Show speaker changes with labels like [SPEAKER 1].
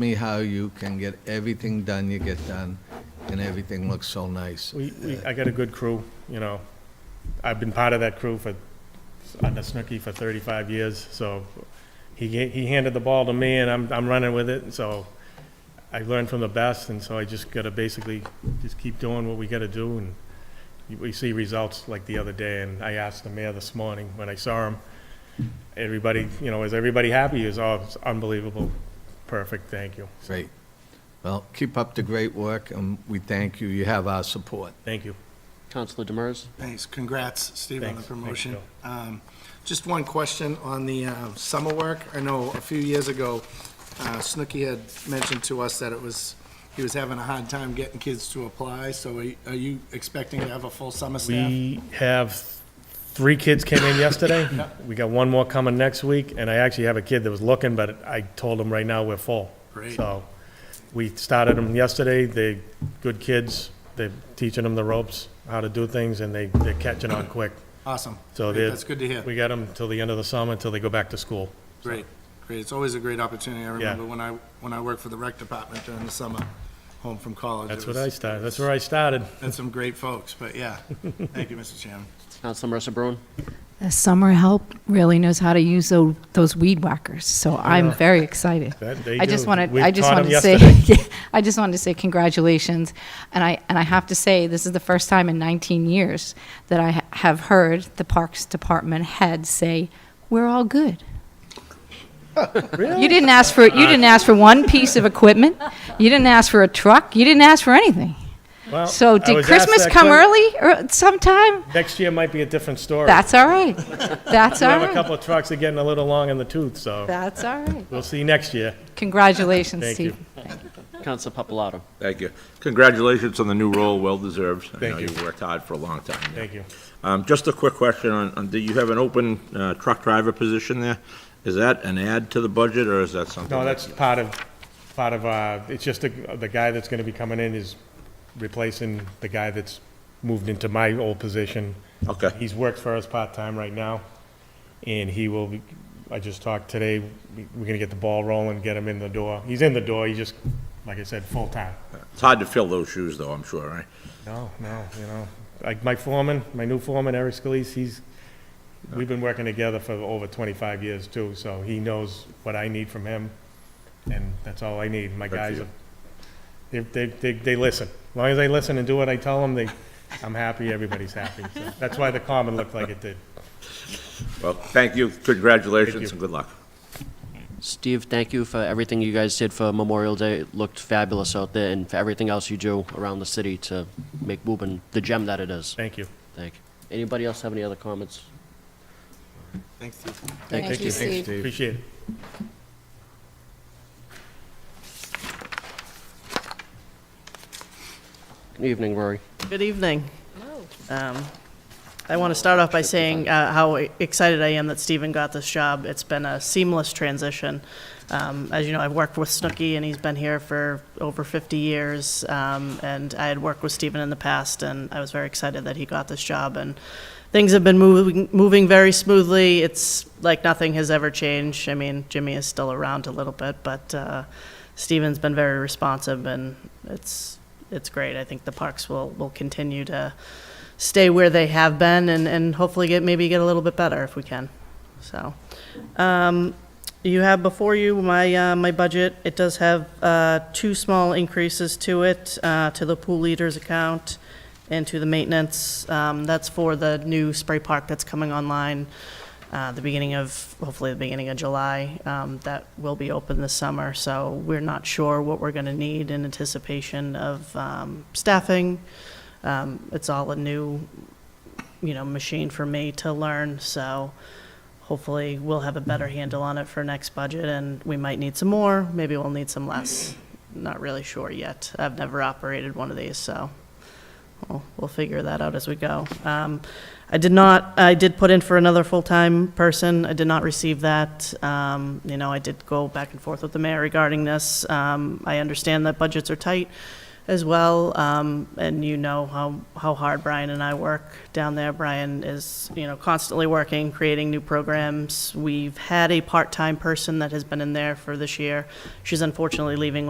[SPEAKER 1] me how you can get everything done you get done, and everything looks so nice.
[SPEAKER 2] We, we, I got a good crew, you know. I've been part of that crew for, under Snooki for thirty-five years, so he, ga- he handed the ball to me and I'm, I'm running with it, and so I learned from the best, and so I just gotta basically just keep doing what we gotta do, and you- we see results like the other day, and I asked the mayor this morning when I saw him, everybody, you know, is everybody happy? Is, oh, it's unbelievable. Perfect, thank you.
[SPEAKER 1] Great. Well, keep up the great work, and we thank you. You have our support.
[SPEAKER 2] Thank you.
[SPEAKER 3] Counselor Demers?
[SPEAKER 4] Thanks, congrats, Steve, on the
[SPEAKER 2] Thanks. Thanks,
[SPEAKER 4] promotion. Um, Just one question on the uh, summer work. I know a few years ago, uh, Snooki had mentioned to us that it was, he was having a hard time getting kids to apply, so are you- are you expecting to have a full summer staff?
[SPEAKER 2] We have, three kids came in yesterday. We got one more coming next week, and I actually have a kid that was looking, but I told him right now we're full.
[SPEAKER 4] Great.
[SPEAKER 2] So, we started them yesterday, they, good kids, they're teaching them the ropes, how to do things, and they, they're catching on quick.
[SPEAKER 4] Awesome.
[SPEAKER 2] So
[SPEAKER 4] Great,
[SPEAKER 2] they're.
[SPEAKER 4] That's good to hear.
[SPEAKER 2] We got them till the end of the summer, until they go back to school.
[SPEAKER 4] Great, great. It's always a great opportunity. I remember when I, when I worked for the rec department during the summer, home from college.
[SPEAKER 2] That's
[SPEAKER 4] It
[SPEAKER 2] what
[SPEAKER 4] was-
[SPEAKER 2] I started, that's where I started.
[SPEAKER 4] Had some great folks, but yeah. Thank you, Mr. Chairman.
[SPEAKER 3] Counselor Mercer Bruin?
[SPEAKER 5] The summer help really knows how to use tho- those weed whackers, so I'm very excited.
[SPEAKER 2] That they
[SPEAKER 5] I just
[SPEAKER 2] do.
[SPEAKER 5] wanted,
[SPEAKER 2] We
[SPEAKER 5] I just
[SPEAKER 2] taught 'em
[SPEAKER 5] wanted to say, Yeah, I just wanted to say congratulations. And I, and I have to say, this is the first time in 19 years that I ha- have heard the Parks Department head say, "We're all good." You didn't ask for, you didn't ask for one piece of equipment, you didn't ask for a truck, you didn't ask for anything.
[SPEAKER 2] Well, I
[SPEAKER 5] So did
[SPEAKER 2] was asked
[SPEAKER 5] Christmas
[SPEAKER 2] that
[SPEAKER 5] come
[SPEAKER 2] que-
[SPEAKER 5] early or sometime?
[SPEAKER 2] Next year might be a different story.
[SPEAKER 5] That's all right. That's
[SPEAKER 2] We
[SPEAKER 5] all
[SPEAKER 2] have a
[SPEAKER 5] right.
[SPEAKER 2] couple of trucks that are getting a little long in the tooth, so
[SPEAKER 5] That's all right.
[SPEAKER 2] we'll see next year.
[SPEAKER 5] Congratulations,
[SPEAKER 2] Thank
[SPEAKER 5] Steve.
[SPEAKER 2] you.
[SPEAKER 3] Counselor Papalato?
[SPEAKER 6] Thank you. Congratulations on the new role, well-deserved. I know
[SPEAKER 2] Thank you.
[SPEAKER 6] you've worked hard for a long time.
[SPEAKER 2] Thank you.
[SPEAKER 6] Um, Just a quick question on, on- do you have an open uh, truck driver position there? Is that an add to the budget, or is that something?
[SPEAKER 2] No, that's part of, part of, uh, it's just the, the guy that's gonna be coming in is replacing the guy that's moved into my old position.
[SPEAKER 6] Okay.
[SPEAKER 2] He's worked for us part-time right now, and he will, be- I just talked today, we- we're gonna get the ball rolling, get him in the door. He's in the door, he just, like I said, full-time.
[SPEAKER 6] It's hard to fill those shoes, though, I'm sure, right?
[SPEAKER 2] No, no, you know, like my foreman, my new foreman, Eric Scalise, he's, we've been working together for over twenty-five years too, so he knows what I need from him, and that's all I need. My
[SPEAKER 6] Good for
[SPEAKER 2] guys,
[SPEAKER 6] you.
[SPEAKER 2] are- they, they, they, they listen. As long as they listen and do what I tell them, they, I'm happy, everybody's happy. So That's why the common looked like it did.
[SPEAKER 6] Well, thank you, congratulations, and good luck.
[SPEAKER 3] Steve, thank you for everything you guys did for Memorial Day. It looked fabulous out there, and for everything else you do around the city to make Woburn the gem that it is.
[SPEAKER 2] Thank you.
[SPEAKER 3] Thank you. Anybody else have any other comments?
[SPEAKER 4] Thanks, Steve.
[SPEAKER 3] Thank
[SPEAKER 5] you,
[SPEAKER 1] Thanks,
[SPEAKER 5] Steve.
[SPEAKER 1] Steve.
[SPEAKER 2] Appreciate it.
[SPEAKER 3] Good evening, Rory.
[SPEAKER 7] Good evening. Um, I want to start off by saying uh, how excited I am that Stephen got this job. It's been a seamless transition. Um, As you know, I've worked with Snooki, and he's been here for over 50 years, um, and I had worked with Stephen in the past, and I was very excited that he got this job, and things have been moving, moving very smoothly. It's like nothing has ever changed. I mean, Jimmy is still around a little bit, but uh, Stephen's been very responsive, and it's, it's great. I think the parks will, will continue to stay where they have been and, and hopefully get, maybe get a little bit better if we can. So, um, you have before you my, uh, my budget. It does have, uh, two small increases to it, uh, to the pool leaders account and to the maintenance. Um, that's for the new spray park that's coming online, uh, the beginning of, hopefully the beginning of July. Um, that will be open this summer, so we're not sure what we're gonna need in anticipation of, um, staffing. Um, it's all a new, you know, machine for me to learn, so hopefully we'll have a better handle on it for next budget, and we might need some more, maybe we'll need some less. Not really sure yet. I've never operated one of these, so we'll, we'll figure that out as we go. Um, I did not, I did put in for another full-time person. I did not receive that. Um, you know, I did go back and forth with the mayor regarding this. Um, I understand that budgets are tight. as well. Um, and you know how, how hard Brian and I work down there. Brian is, you know, constantly working, creating new programs. We've had a part-time person that has been in there for this year. She's unfortunately leaving